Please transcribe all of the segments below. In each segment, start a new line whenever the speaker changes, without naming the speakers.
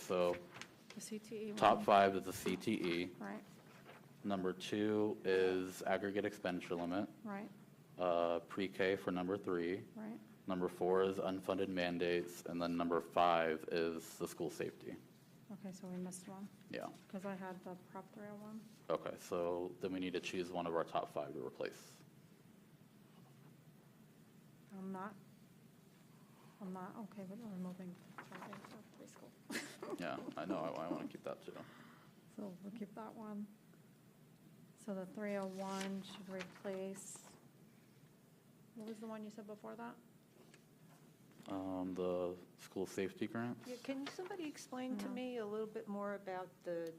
So
The CTE one.
top five is the CTE.
Right,
Number two is aggregate expenditure limit,
right,
uh, pre-K for number three.
right.
Number four is unfunded mandates, and then number five is the school safety.
Okay, so we missed one,
Yeah,
because I had the Prop 301. one.
okay, so then we need to choose one of our top five to replace.
I'm not, I'm not okay with removing oh child aid for preschool.
Yeah, I know, I- I want to keep that too.
So we'll keep that one. So the 301 should replace, what was the one you said before that?
Um, The school safety grant?
Yeah, Can somebody explain to
No.
Mm-hmm.
me a little bit more about the,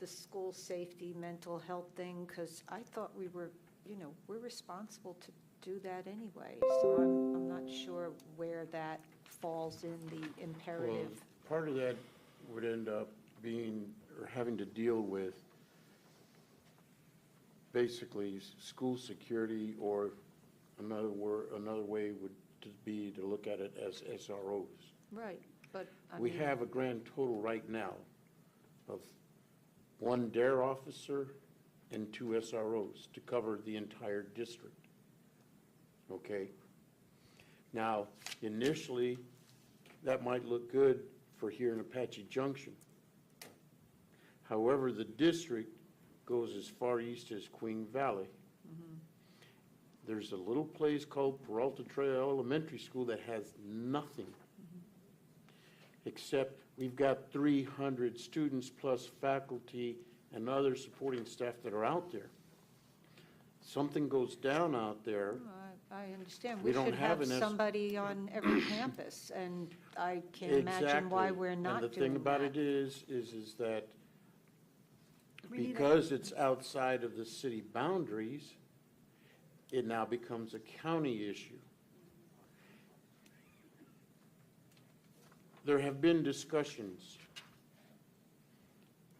the school safety, mental health thing? Because I thought we were, you know, we're responsible to do that anyway. So I'm, I'm not sure where that falls in the
Well,
imperative.
Part of that would end up being, or having to deal with basically s- school security, or another word, another way would to be to look at it as SROs.
Right, but I
We
mean,
have a grand total right now of one DARE officer and two SROs to cover the entire district. Okay? Now, initially, that might look good for here in Apache Junction. However, the district goes as far east as Queen Valley.
Mm-hmm.
There's a little place called Peralta Trail Elementary School that has nothing
Mm-hmm.
except we've got 300 students plus faculty and other supporting staff that are out there. Something goes down out there.
no, oh, I I understand.
We
We
don't
should
have
have
an S-
somebody on every campus, and I can't imagine why
Exactly.
we're not doing
And the thing about
that.
it is, is, is that
We need a-
because it's outside of the city boundaries, it now becomes a county issue. There have been discussions,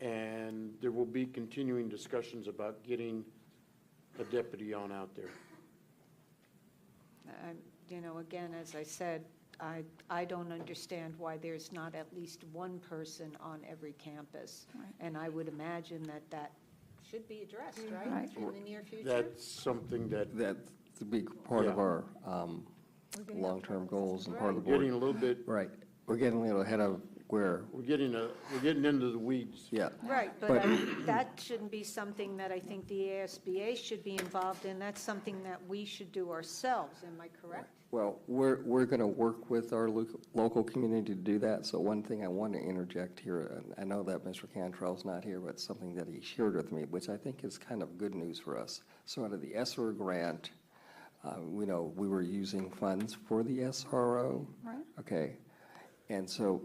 and there will be continuing discussions about getting a deputy on out there.
I- Um, You know, again, as I said, I, I don't understand why there's not at least one person on every campus.
Right.
And I would imagine that that should be addressed, right,
Right.
in the near future?
That's something that,
That's a big part of
Yeah.
our um,
We're gonna have
long-term goals and part of the
we're getting a
board.
little bit,
Right, we're getting a little ahead of where,
we're getting a, we're getting into the weeds.
yeah.
Right, but
But-
I- that shouldn't be something that I think the ASBA should be involved in. That's something that we should do ourselves, am I correct?
Well, we're, we're going to work with our loc- local community to do that, so one thing I want to interject here, and I know that Mr. Cantrell's not here, but something that he shared with me, which I think is kind of good news for us. So out of the SR grant, uh, we know we were using funds for the SRO.
Right.
Okay, and so,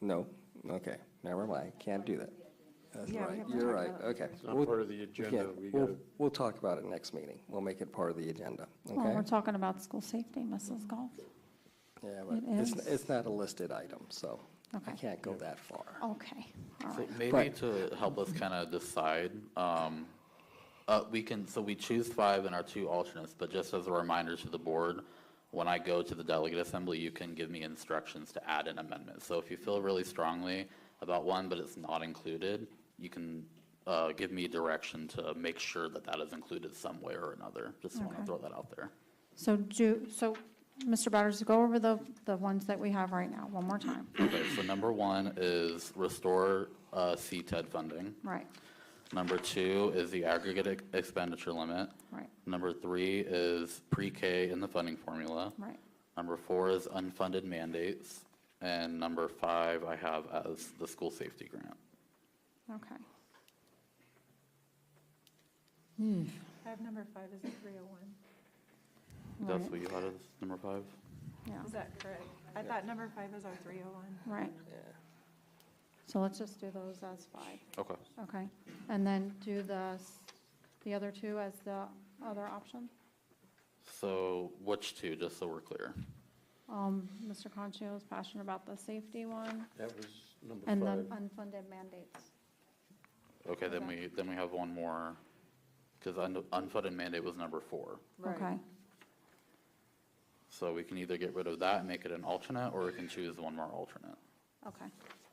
no, okay, never mind, can't do that. That's
Yeah, we
right,
haven't
you're
talked
right,
about it
okay.
It's not
We'll-
part of the
we
agenda.
can't-
We
we'll-
gotta-
We'll talk about it next meeting, we'll make it part of the agenda, okay?
Well, we're talking about school safety, Mrs. Goff.
Yeah, but
It
it's,
is.
it's not a listed item, so I
Okay.
can't go that far.
Okay, all
So
right.
maybe
But-
to help us kind of decide, um, uh, we can, so we choose five and our two alternates, but just as a reminder to the board, when I go to the delegate assembly, you can give me instructions to add an amendment. So if you feel really strongly about one, but it's not included, you can, uh, give me direction to make sure that that is included some way or another. Just want to
Okay.
throw that out there.
So do, so, Mr. Butters, go over the, the ones that we have right now, one more time.
Okay, so number one is restore, uh, CTED funding.
Right,
Number two is the aggregate ex- expenditure limit.
right,
Number three is pre-K in the funding formula.
right.
Number four is unfunded mandates. And number five, I have as the school safety grant.
Okay.
I have number five as a 301.
That's
Right.
what you had as number five?
Yeah,
Is that correct? I thought number five was our 301.
right. So let's just do those as five,
Okay.
okay? And then do the, s- the other two as the other option?
So which two, just so we're clear?
Um, Mr. Concho is passionate about the safety one
That was number
and the
five.
unfunded mandates.
Okay, then
Okay.
we, then we have one more, because unfunded mandate was number four.
Okay,
So we can either get rid of that and make it an alternate, or we can choose one more alternate.
Okay.